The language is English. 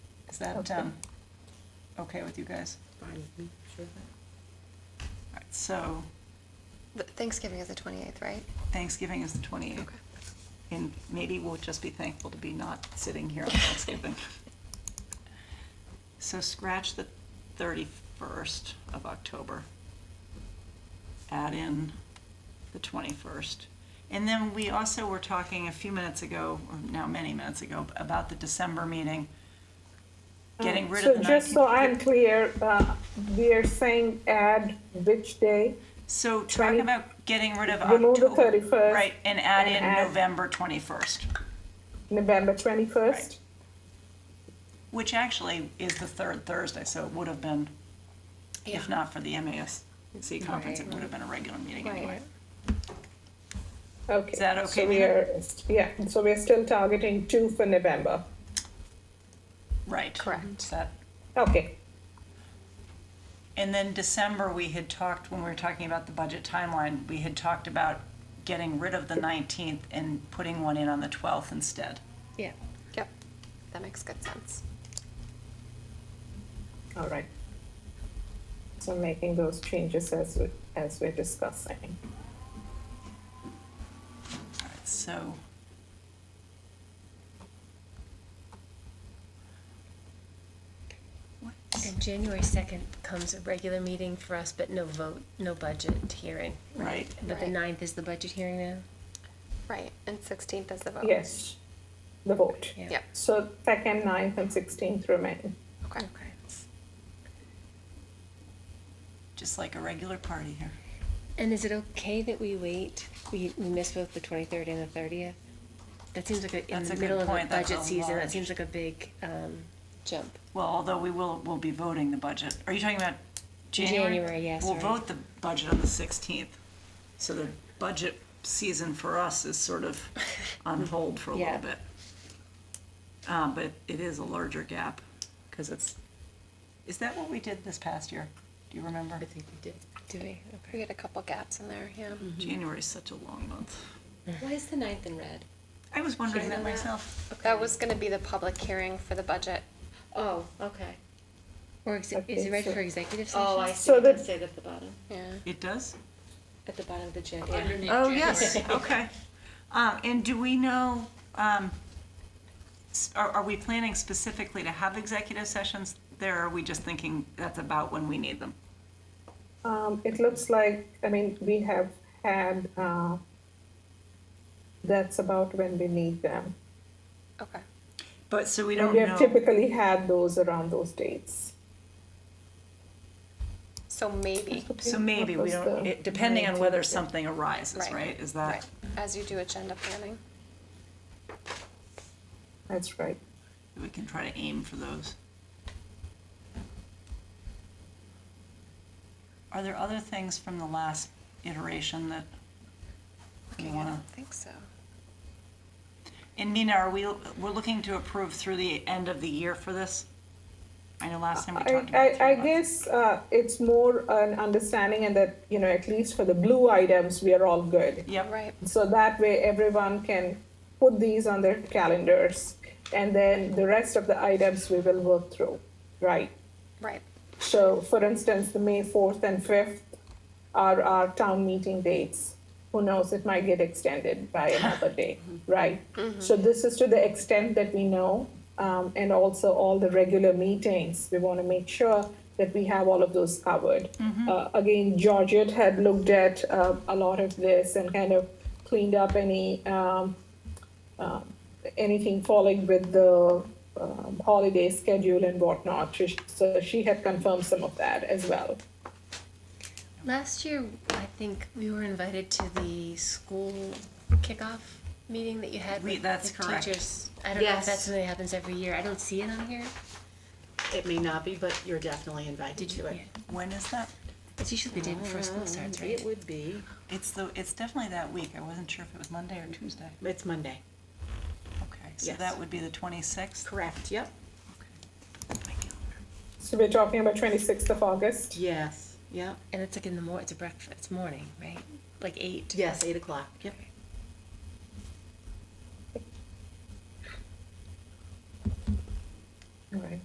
Is that, Okay. um, okay with you guys? All right, so Th- Thanksgiving is the 28th, right? Thanksgiving is the twenty-eighth, Okay. and maybe we'll just be thankful to be not sitting here on Thanksgiving. So scratch the thirty-first of October. Add in the twenty-first. And then we also were talking a few minutes ago, or now many minutes ago, about the December meeting. Getting rid of the Uh, Oh, So just so I'm 19th. clear, uh, we are saying add which day? So talk 20 about getting rid of remove the October. 31st, Right, and add and in add- November twenty-first. November 21st? Which actually is the third Thursday, so it would have been, if not for the MASC conference, it Right. would have been a regular meeting Right. anyway. Okay. Is that okay, So we Nina? are, yeah, so we're still targeting two for November. Right. Correct. So that- Okay, And then December, we had talked, when we were talking about the budget timeline, we had talked about getting rid of the 19th and putting one in on the 12th instead. Yeah. Yep. That makes good sense. all right. So making those changes as, we- as we're discussing. All right, so. What? And January second comes a regular meeting for us, but no vote, no budget hearing. Right. But the Right. ninth is the budget hearing now? Right. And 16th is the vote. Yes, the vote. Yeah. Yep. So second, ninth, and 16th remain. Okay. Just like a regular party here. And is it okay that we wait? We, we miss both the twenty-third and the thirtieth? That seems like a, in That's a the good middle of a point. That's budget a season, that large- seems like a big, um, jump. Well, although we will, we'll be voting the budget. Are you talking about January? January, yes, We'll right. vote the budget on the 16th. So the budget season for us is sort of on hold for a little Yeah. bit. Uh, But it is a larger gap because it's, is that what we did this past year? Do you remember? think we did. Do we? We Okay. had a couple gaps in there. Yeah. Mm-hmm. January is such a long month. Why is the ninth in red? I was wondering that Isn't that- myself. That was going to be the public hearing for the budget. Oh, okay. Or exe- is Okay, it ready so- for executive session? Oh, I see. So It does the- say that at the bottom, Yeah. It does? at the bottom of the agenda. Underneath Oh, January. yes, okay. Um, and do we know, um, s- are, are we planning specifically to have executive sessions there? Or are we just thinking that's about when we need them? Um, it looks like, I mean, we have had, uh, that's about when we need them. Okay. But, so we And don't we have know. typically had those around those dates. So maybe. So maybe we don't, it- depending on whether something arises, Right. right? Is that, As you do agenda planning. That's right. we can try to aim for those. Are there other things from the last iteration that you Okay, I wanna? don't think so. And Nina, are we, we're looking to approve through the end of the year for this? I know last time we I, talked about I, I three months. guess, uh, it's more an understanding and that, you know, at least for the blue items, we are all good. Yep, Right. So that way everyone can put these on their calendars and then the rest of the items we will work through, right? Right. So, for instance, the May 4th and 5th are our town meeting dates. Who knows, it might get extended by another day, right? So, this is to the extent that we know, um, and also all the regular meetings. We want to make sure that we have all of those covered. Uh, again, Georgette had looked at uh, a lot of this and kind of cleaned up any. Um, anything falling with the um, holiday schedule and whatnot. She- So she had confirmed some of that as well. Last year, I think we were invited to the school kickoff meeting that you had We- with that's with correct. teachers. I don't know if Yes. that's something that happens every year. I don't see it on here. It may not be, but you're definitely invited to it. Yeah. when is that? It's usually the day before school starts, Um, right? It would be, It's the, it's definitely that week, I wasn't sure if it was Monday or Tuesday. it's Monday. Okay, so Yes. that would be the twenty-sixth? Correct, yep. So we're talking about 26th of August. Yes, yep. And it's like in the morning, it's a breakfast, it's morning, right? Like eight. Yes, eight o'clock, yep. All right.